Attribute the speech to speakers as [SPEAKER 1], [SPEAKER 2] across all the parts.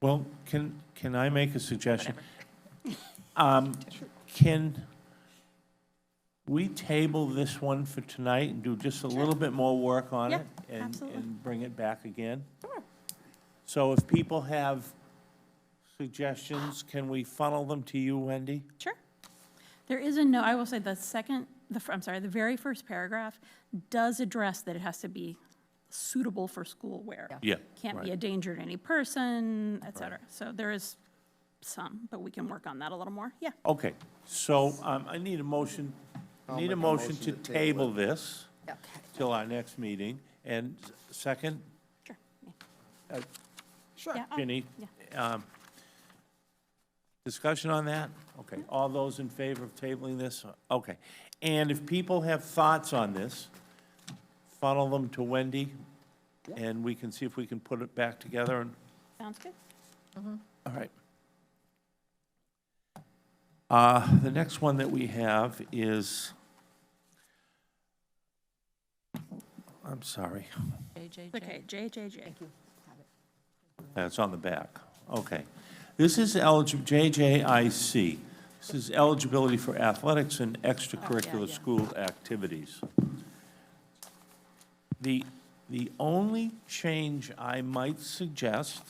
[SPEAKER 1] Well, can, can I make a suggestion? Um, Can we table this one for tonight and do just a little bit more work on
[SPEAKER 2] Yeah,
[SPEAKER 1] it? and-
[SPEAKER 2] absolutely.
[SPEAKER 1] And bring it back again?
[SPEAKER 2] Sure.
[SPEAKER 1] So if people have suggestions, can we funnel them to you, Wendy?
[SPEAKER 2] Sure. There is a note, I will say the second, the, fir- I'm sorry, the very first paragraph does address that it has to be suitable for school wear.
[SPEAKER 1] Yeah.
[SPEAKER 2] Can't be
[SPEAKER 1] right.
[SPEAKER 2] a danger to any person, et cetera. So there is some, but we can work on that a little more. Yeah,
[SPEAKER 1] Okay, so um, I need a motion, need a motion to table this till our next meeting. And s- second,
[SPEAKER 2] sure. Yeah.
[SPEAKER 3] Sure.
[SPEAKER 2] Yeah, oh, I'll-
[SPEAKER 1] Ginny? um, Discussion on that? Okay, all those in favor of tabling this? Okay. And if people have thoughts on this, funnel them to Wendy, and we can see if we can put it back together and
[SPEAKER 2] Sounds good.
[SPEAKER 1] all right. Uh, The next one that we have is, I'm sorry,
[SPEAKER 2] Okay, JJJ.
[SPEAKER 1] that's on the back. Okay. This is eligible, JJIC. This is eligibility for athletics and extracurricular school activities. The, the only change I might suggest,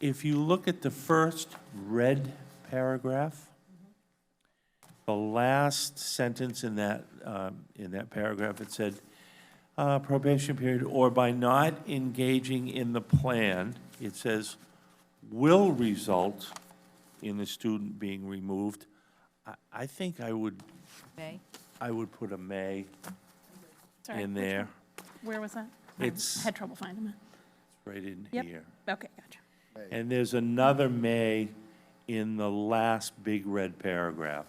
[SPEAKER 1] if you look at the first red paragraph, the last sentence in that, um, in that paragraph, it said, uh, probation period, or by not engaging in the plan, it says, will result in the student being removed. I, I think I would,
[SPEAKER 3] May?
[SPEAKER 1] I would put a may
[SPEAKER 2] Sorry,
[SPEAKER 1] in
[SPEAKER 2] which one?
[SPEAKER 1] there,
[SPEAKER 2] Where was that? I
[SPEAKER 1] It's-
[SPEAKER 2] Had trouble finding it.
[SPEAKER 1] right in
[SPEAKER 2] Yep.
[SPEAKER 1] here.
[SPEAKER 2] Okay, gotcha.
[SPEAKER 1] And there's another may in the last big red paragraph.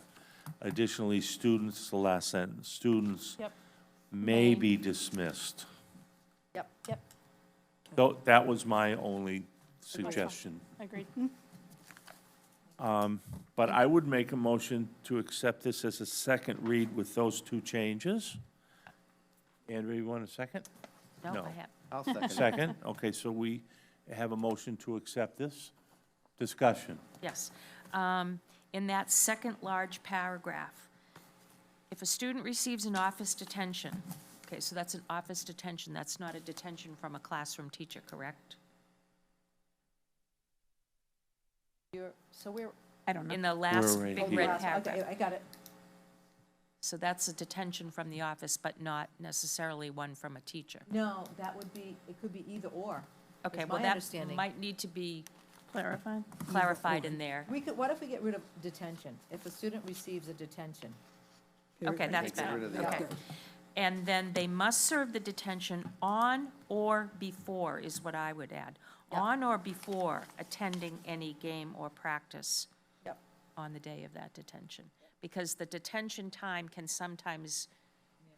[SPEAKER 1] Additionally, students, the last sentence, students
[SPEAKER 2] Yep.
[SPEAKER 1] may be dismissed.
[SPEAKER 3] Yep. Yep.
[SPEAKER 1] Tho- That was my only suggestion.
[SPEAKER 2] Agreed.
[SPEAKER 1] But I would make a motion to accept this as a second read with those two changes. Andrew, you want a second?
[SPEAKER 3] No,
[SPEAKER 1] No.
[SPEAKER 3] I have.
[SPEAKER 4] I'll second.
[SPEAKER 1] Second, okay, so we have a motion to accept this. Discussion.
[SPEAKER 3] Yes. Um, In that second large paragraph, if a student receives an office detention, okay, so that's an office detention, that's not a detention from a classroom teacher, correct?
[SPEAKER 5] You're, so we're,
[SPEAKER 2] I don't
[SPEAKER 3] In
[SPEAKER 2] know.
[SPEAKER 3] the last
[SPEAKER 1] right
[SPEAKER 3] big
[SPEAKER 1] here.
[SPEAKER 3] red
[SPEAKER 5] okay,
[SPEAKER 3] paragraph.
[SPEAKER 5] I got it.
[SPEAKER 3] So that's a detention from the office, but not necessarily one from a teacher.
[SPEAKER 5] No, that would be, it could be either or. is
[SPEAKER 3] Okay, well,
[SPEAKER 5] my
[SPEAKER 3] that
[SPEAKER 5] understanding.
[SPEAKER 3] might need to be
[SPEAKER 2] Clarified.
[SPEAKER 3] clarified in there.
[SPEAKER 5] We could, what if we get rid of detention? If a student receives a detention,
[SPEAKER 3] Okay, that's
[SPEAKER 4] Get rid
[SPEAKER 3] better,
[SPEAKER 4] of the
[SPEAKER 3] okay.
[SPEAKER 4] other.
[SPEAKER 3] And then they must serve the detention on or before is what I would add.
[SPEAKER 5] Yep.
[SPEAKER 3] On or before attending any game or practice
[SPEAKER 5] Yep.
[SPEAKER 3] on the day of that detention. Because the detention time can sometimes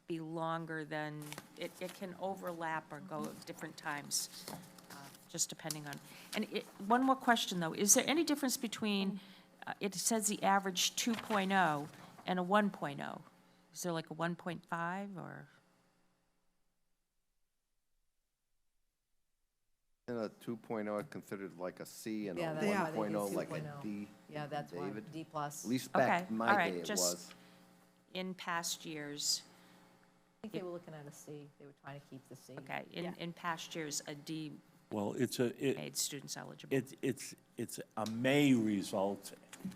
[SPEAKER 3] be longer than, it, it can overlap or go at different times, uh, just depending on. And it, one more question, though. Is there any difference between, uh, it says the average 2.0 and a 1.0? Is there like a 1.5 or?
[SPEAKER 4] And a 2.0 are considered like a C and a
[SPEAKER 5] Yeah, that's why they
[SPEAKER 4] 1.0
[SPEAKER 5] do
[SPEAKER 4] like a
[SPEAKER 5] 2.0.
[SPEAKER 4] D.
[SPEAKER 5] oh. yeah, that's why,
[SPEAKER 4] David?
[SPEAKER 5] D plus.
[SPEAKER 4] At least back
[SPEAKER 3] Okay,
[SPEAKER 4] in
[SPEAKER 3] all
[SPEAKER 4] my
[SPEAKER 3] right,
[SPEAKER 4] day it
[SPEAKER 3] just-
[SPEAKER 4] was.
[SPEAKER 3] in past years,
[SPEAKER 5] I think they were looking at a C, they were trying to keep the C.
[SPEAKER 3] okay,
[SPEAKER 5] Yeah.
[SPEAKER 3] in, in past years, a D
[SPEAKER 1] Well, it's a, it,
[SPEAKER 3] made students eligible.
[SPEAKER 1] it's, it's, it's a may result.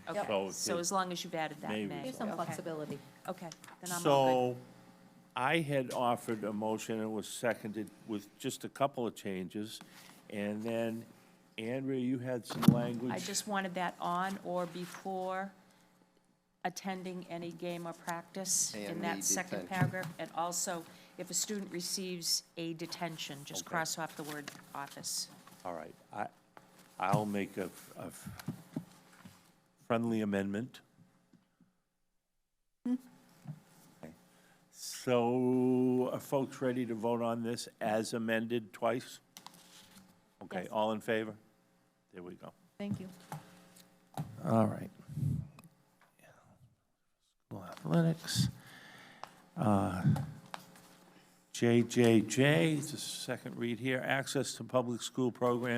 [SPEAKER 3] Okay,
[SPEAKER 1] so
[SPEAKER 3] so as long as you've added that,
[SPEAKER 1] May
[SPEAKER 3] may.
[SPEAKER 5] Here's some
[SPEAKER 3] Okay,
[SPEAKER 5] flexibility.
[SPEAKER 3] Okay, then I'm all
[SPEAKER 1] So I had offered a motion and was seconded with just a couple of changes. And then, Andrea, you had some
[SPEAKER 3] good.
[SPEAKER 1] language.
[SPEAKER 3] I just wanted that on or before attending any game or practice in
[SPEAKER 4] And the
[SPEAKER 3] that second
[SPEAKER 4] detention.
[SPEAKER 3] paragraph. And also, if a student receives a detention, just
[SPEAKER 1] Okay.
[SPEAKER 3] cross off the word office.
[SPEAKER 1] All right, I, I'll make a, a friendly amendment. Okay. So are folks ready to vote on this as amended twice? Okay,
[SPEAKER 5] Yes.
[SPEAKER 1] all in favor? There we go.
[SPEAKER 5] Thank you.
[SPEAKER 1] All right. School athletics. Uh, JJJ, it's a second read here, access to public school programs.